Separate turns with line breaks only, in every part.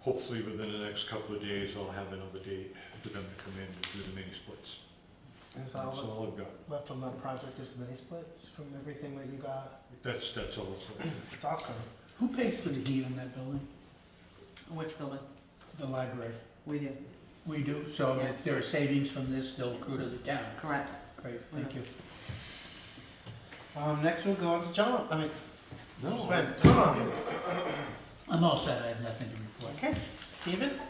hopefully within the next couple of days, I'll have another date for them to come in and do the mini splits.
That's
That's all
all
I've got.
that's left on that project is mini splits from everything that you got.
That's, that's all it's like.
It's awesome.
Who pays for the heat in that building?
Which building?
The library.
We do,
We do, so
Yeah.
if there are savings from this, they'll accrue to the town.
correct.
Great, thank you.
Um, next we'll go on to John, I mean,
No,
just went, Tom,
I'm all set, I have nothing to report.
okay, David?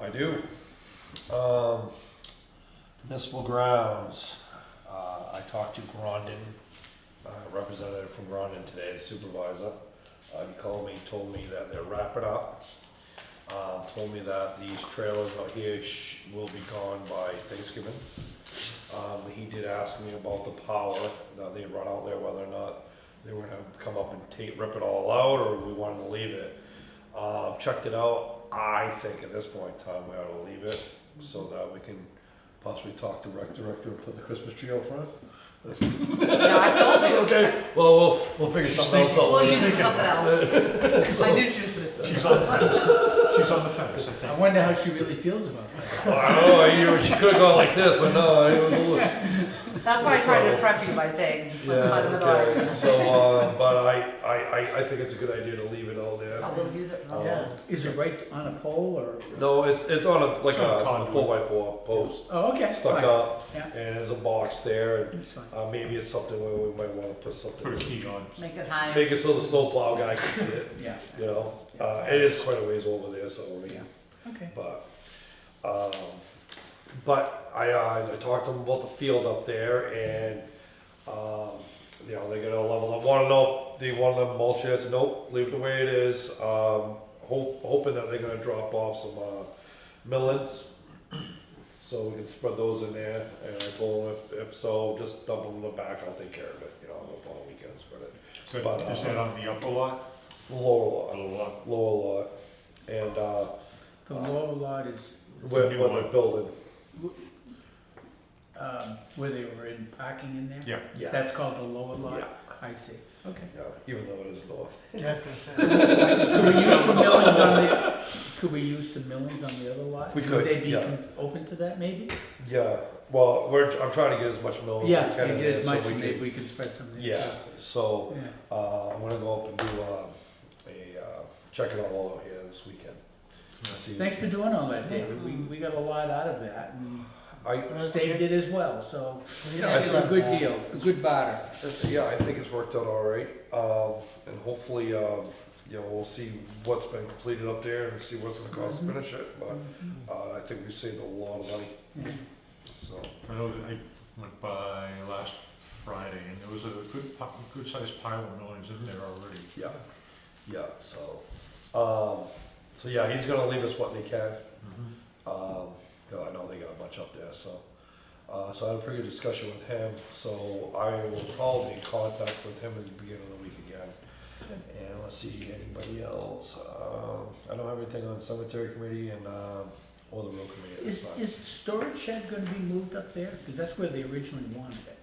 I do. Um, municipal grounds. Uh, I talked to Grondon, uh, representative from Grondon today, the supervisor. Uh, he called me, told me that they're wrapping up. Um, told me that these trailers out here sh- will be gone by Thanksgiving. Um, he did ask me about the power that they run out there, whether or not they were gonna come up and tape, rip it all out, or we wanted to leave it. Um, checked it out. I think at this point in time, we ought to leave it so that we can possibly talk to rec director and put the Christmas tree out front.
No, I told you.
Okay, well, we'll, we'll figure something else out.
Well, you did something else. I knew she was gonna say.
She's on the fence, she's on the fence, I
I
think.
wonder how she really feels about that.
I don't know, you, she could've gone like this, but no, it was a little.
That's why I tried to prep you by saying, let's find another
Yeah, okay,
item.
so, uh, but I, I, I, I think it's a good idea to leave it all there.
I will use it for
Yeah.
that.
Is it right on a pole or?
No, it's, it's on a, like
It's on a
a
conduit.
four by four post,
Oh, okay.
stuck
fine.
up,
Yeah.
and there's a box there, and,
It's fine.
uh, maybe it's something where we might wanna put
Put a
something.
key on.
Make it higher.
Make it so the snowplow guy can see it.
Yeah,
you know, uh, it is quite a ways over there, so I mean,
okay.
but, um, but I, uh, I talked to them about the field up there and, um, you know, they're gonna level up, wanna know if they wanna mulch it, I said, nope, leave it the way it is, um, hope, hoping that they're gonna drop off some, uh, millets. So we can spread those in there, and I told them if, if so, just dump them in the back, I'll take care of it, you know, I'm up on the weekends, spread it,
So is that on the upper lot?
lower lot
Lower lot.
lower lot, and uh,
The lower lot is,
where,
new
where
one.
they're building.
um, where they were in parking in there?
Yeah.
Yeah.
That's called the lower
Yeah.
lot? I see, okay.
yeah, even though it is north.
Yeah, I was gonna say.
Could we use some millings on the, could we use some millings on the other lot?
We could,
Would they be
yeah.
con- open to that maybe?
Yeah, well, we're I'm trying to get as much mill as
Yeah,
we can.
and
in
get as
there
much,
so we
and
can,
maybe we can spread something.
Yeah, so
Yeah.
uh, I'm gonna go up and do uh, a uh, check it all out here this weekend. See,
Thanks for doing all that, David, we, we got a lot out of that, and
I
Steve did as well, so
Yeah,
I
it's a
think-
good deal, a good barter.
yeah, I think it's worked out all right, um, and hopefully, um, you know, we'll see what's been completed up there and see what's gonna cost
Mm-hmm.
to finish it. But uh, I think we saved a lot of money,
Yeah.
so.
I know that I went by last Friday and there was a good, pi- good sized pile of millings in there already.
Yeah, yeah, so, um, so yeah, he's gonna leave us what they can,
Mhm.
um, 'cause I know they got a bunch up there, so. Uh, so I had a pretty good discussion with him, so I will probably be in contact with him at the beginning of the week again. And let's see, anybody else, um, I don't have anything on cemetery committee and, um, or the road committee at this
Is,
time.
is the storage shed gonna be moved up there? Cause that's where they originally wanted it.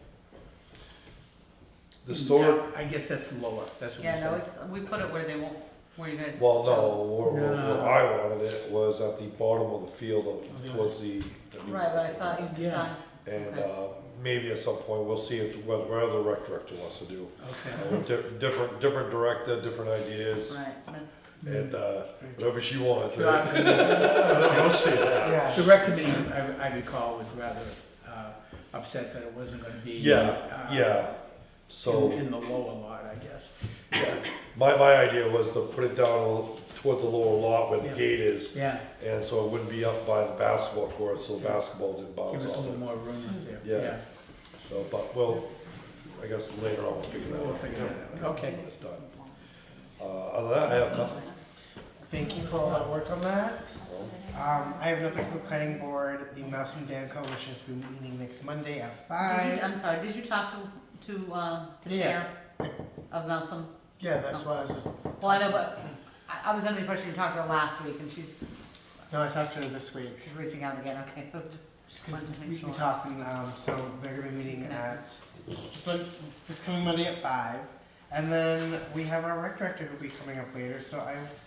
The store,
Yeah, I guess that's lower, that's what we
Yeah, no,
said.
it's, we put it where they won't, where you guys.
well, no,
chose.
where, where where
No.
I wanted it was at the bottom of the field,
Oh, the other-
towards the. the new-
Right, but I thought you
Yeah.
decided.
And
Okay.
uh, maybe at some point, we'll see if, what, what other rec director wants to do.
Okay.
Uh, di- Different, different director, different ideas,
Right, that's,
and uh, whatever she wants.
So
right?
I-
Don't say that.
Yeah,
The rec committee, I, I recall, was rather, uh, upset that it wasn't gonna be.
Yeah,
uh,
Yeah,
In,
so
in the lower lot, I guess.
my, my idea was to put it down towards the lower lot where the
Yeah.
gate is,
Yeah,
and so it wouldn't be up by the basketball court, so the basketball didn't
give us
bounce
a
off
little
it.
more room up there,
Yeah.
yeah.
So, but, well, I guess later on we'll figure that out.
We'll figure that out. Okay.
When it's done. Uh, Other than that, I have nothing.
thank you for all that work on that.
so.
Um, I have nothing for the planning board, the Mouse and Dan Coalition has been meeting next Monday at
did you, um,
five.
I'm sorry, did you talk to, to, uh, the
Yeah.
chair of Melson?
Yeah, that's why I was just,
Well, I know, but I, I was under the impression you talked to her last week and she's,
no, I talked to her this week.
she's reaching out again, okay, so just
Just
wanted
'cause
to
we
make
we
sure.
talked and, um, so they're gonna be meeting at,
Connected.
this one- this coming Monday at five. And then we have our rec director who'll be coming up later, so I